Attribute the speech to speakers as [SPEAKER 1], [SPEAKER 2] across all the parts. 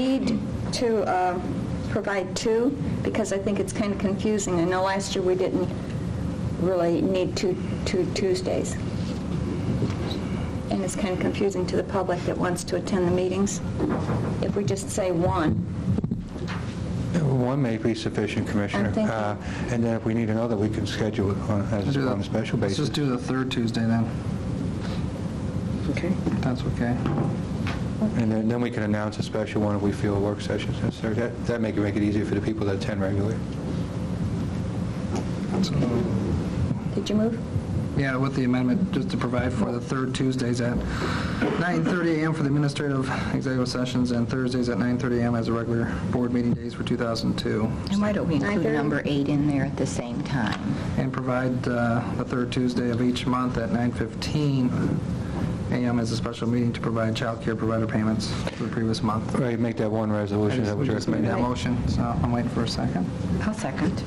[SPEAKER 1] need to uh, provide two? Because I think it's kind of confusing. I know last year we didn't really need two, two Tuesdays. And it's kind of confusing to the public that wants to attend the meetings. If we just say one,
[SPEAKER 2] One may be sufficient, Commissioner.
[SPEAKER 1] I'm thinking.
[SPEAKER 2] Uh, And then if we need another, we can schedule it on as-
[SPEAKER 3] Do the-
[SPEAKER 2] on a special
[SPEAKER 3] Let's
[SPEAKER 2] basis.
[SPEAKER 3] just do the third Tuesday then,
[SPEAKER 1] okay,
[SPEAKER 3] if that's okay.
[SPEAKER 2] And then then we can announce a special one if we feel a work session is necessary. That- That may make it easier for the people that attend regularly.
[SPEAKER 3] So,
[SPEAKER 1] did you move?
[SPEAKER 3] Yeah, with the amendment, just to provide for the third Tuesdays at 9:30 a.m. for the administrative executive sessions and Thursdays at 9:30 a.m. as the regular board meeting days for 2002.
[SPEAKER 4] And why don't we include
[SPEAKER 1] 9:30?
[SPEAKER 4] number eight in there at the same time?
[SPEAKER 3] And provide uh, the third Tuesday of each month at 9:15 a.m. as a special meeting to provide child care provider payments for the previous month.
[SPEAKER 2] Right, make that one resolution that
[SPEAKER 3] We
[SPEAKER 2] was
[SPEAKER 3] just made
[SPEAKER 2] recommended.
[SPEAKER 3] that motion, so I'm waiting for a second.
[SPEAKER 4] I'll second.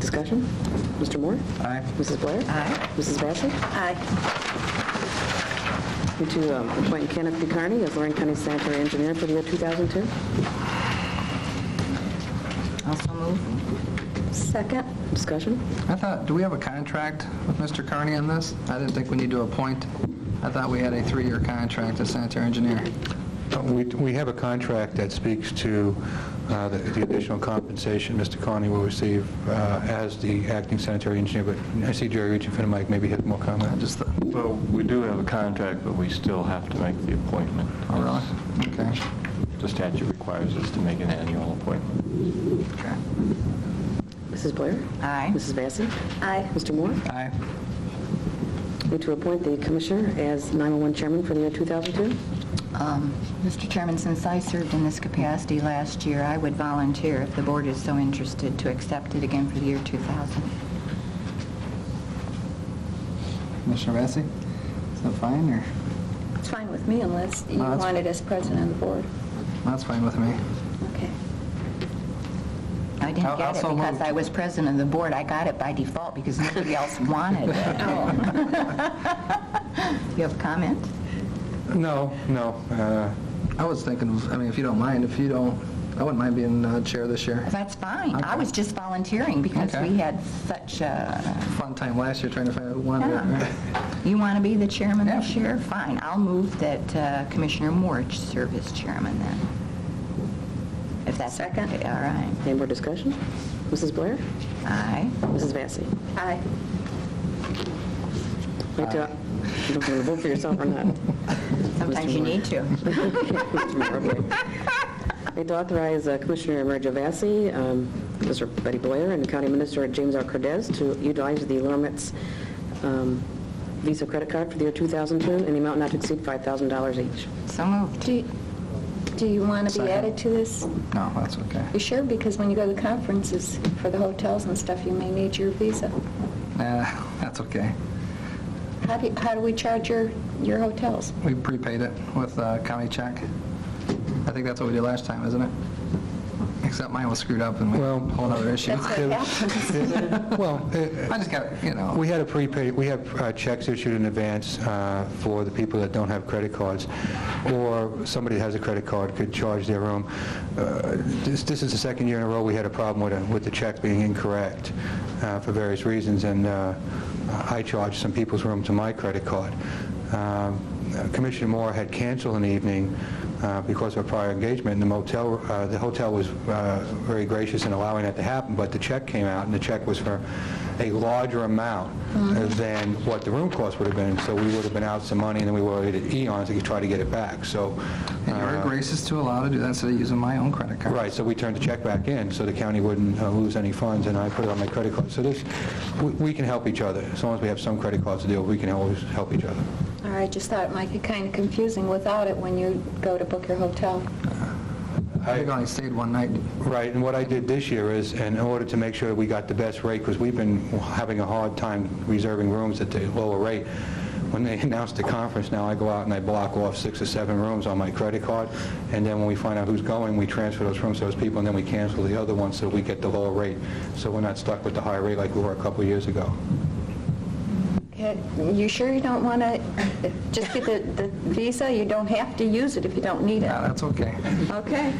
[SPEAKER 5] Discussion? Mr. Moore?
[SPEAKER 3] Aye.
[SPEAKER 5] Mrs. Blair?
[SPEAKER 4] Aye.
[SPEAKER 5] Mrs. Vacy?
[SPEAKER 1] Aye.
[SPEAKER 5] Need to um, appoint Kenneth B. Carney as Lorraine County Sanitary Engineer for the year 2002.
[SPEAKER 4] Also move?
[SPEAKER 1] Second?
[SPEAKER 5] Discussion?
[SPEAKER 3] I thought, do we have a contract with Mr. Carney on this? I didn't think we need to appoint. I thought we had a three-year contract as sanitary engineer.
[SPEAKER 2] Uh, We we have a contract that speaks to uh, the the additional compensation Mr. Carney will receive uh, as the acting sanitary engineer, but I see Jerry reaching for the mic, maybe he has more
[SPEAKER 3] I
[SPEAKER 2] comment.
[SPEAKER 3] just thought,
[SPEAKER 6] Well, we do have a contract, but we still have to make the appointment.
[SPEAKER 3] oh, really? Okay.
[SPEAKER 6] The statute requires us to make an annual appointment.
[SPEAKER 3] Okay.
[SPEAKER 5] Mrs. Blair?
[SPEAKER 4] Aye.
[SPEAKER 5] Mrs. Vacy?
[SPEAKER 1] Aye.
[SPEAKER 5] Mr. Moore?
[SPEAKER 3] Aye.
[SPEAKER 5] Need to appoint the Commissioner as 911 Chairman for the year 2002.
[SPEAKER 4] Um, Mr. Chairman, since I served in this capacity last year, I would volunteer, if the board is so interested, to accept it again for the year 2000.
[SPEAKER 3] Commissioner Vacy? Is that fine, or?
[SPEAKER 1] It's fine with me unless you
[SPEAKER 3] No, Uh, that's-
[SPEAKER 1] want it as president of the board.
[SPEAKER 3] That's fine with me.
[SPEAKER 1] Okay.
[SPEAKER 4] I
[SPEAKER 3] I'll-
[SPEAKER 4] didn't get it
[SPEAKER 3] also
[SPEAKER 4] because
[SPEAKER 3] moved.
[SPEAKER 4] I was president of the board. I got it by default because nobody else wanted Oh. it. You have comment?
[SPEAKER 2] No, no. uh,
[SPEAKER 3] I was thinking, of- I mean, if you don't mind, if you don't, I wouldn't mind being uh, chair this year.
[SPEAKER 4] That's fine. I
[SPEAKER 3] Okay.
[SPEAKER 4] was just volunteering because
[SPEAKER 3] Okay.
[SPEAKER 4] we had such a,
[SPEAKER 3] Fun time last year trying to find out who wanted
[SPEAKER 4] Yeah.
[SPEAKER 3] it.
[SPEAKER 4] You want to be the chairman
[SPEAKER 3] Yeah.
[SPEAKER 4] this year? Fine, I'll move that uh, Commissioner Moore serve as chairman then. If that's...
[SPEAKER 1] Second.
[SPEAKER 4] okay, All right.
[SPEAKER 5] Any more discussion? Mrs. Blair?
[SPEAKER 4] Aye.
[SPEAKER 5] Mrs. Vacy?
[SPEAKER 1] Aye.
[SPEAKER 5] Need to, you don't want to vote for yourself or not.
[SPEAKER 4] Sometimes you
[SPEAKER 5] Moore.
[SPEAKER 4] need to.
[SPEAKER 5] Mr. Moore, okay. Need to authorize uh, Commissioner Emerja Vacy, um, Mr. Betty Blair, and County Minister James R. Cordez to utilize the Lormetz um, Visa credit card for the year 2002 in the amount not to exceed $5,000 each.
[SPEAKER 4] So moved.
[SPEAKER 1] Do you- Do you want to be
[SPEAKER 3] Second.
[SPEAKER 1] added to this?
[SPEAKER 3] No, that's okay.
[SPEAKER 1] You sure? Because when you go to the conferences for the hotels and stuff, you may need your visa.
[SPEAKER 3] Nah, that's okay.
[SPEAKER 1] How do, how do we charge your, your hotels?
[SPEAKER 3] We prepaid it with a county check. I think that's what we did last time, isn't it? Except mine was screwed up and we
[SPEAKER 2] Well-
[SPEAKER 3] whole other issue.
[SPEAKER 1] That's what happens.
[SPEAKER 2] Well, uh,
[SPEAKER 3] I just got, you know,
[SPEAKER 2] We had a prepaid, we have uh, checks issued in advance uh, for the people that don't have credit cards, or somebody that has a credit card could charge their own. Uh, This this is the second year in a row we had a problem with it- with the check being incorrect uh, for various reasons, and uh, I charged some people's room to my credit card. Um, Commissioner Moore had canceled an evening uh, because of a prior engagement, and the motel, uh, the hotel was uh, very gracious in allowing that to happen, but the check came out, and the check was for a larger amount than what the room cost would have been, so we would have been out some money, and then we were at eons to try to get it back, so...
[SPEAKER 3] and you were
[SPEAKER 2] uh,
[SPEAKER 3] gracious to allow to do that instead of using my own credit card.
[SPEAKER 2] Right, so we turned the check back in, so the county wouldn't uh, lose any funds, and I put it on my credit card. So this, we- we can help each other. As long as we have some credit cards to deal, with, we can always help each other.
[SPEAKER 1] Or I just thought it might be kind of confusing without it when you go to book your hotel.
[SPEAKER 3] I think I only stayed one night.
[SPEAKER 2] Right, and what I did this year is, in order to make sure that we got the best rate, because we've been having a hard time reserving rooms at the lower rate, when they announced the conference, now I go out and I block off six or seven rooms on my credit card, and then when we find out who's going, we transfer those rooms to those people, and then we cancel the other ones so we get the lower rate, so we're not stuck with the higher rate like we were a couple of years ago.
[SPEAKER 1] Okay, You sure you don't want to, just get the, the visa, you don't have to use it if you don't need it?
[SPEAKER 3] Yeah, that's okay.
[SPEAKER 1] Okay.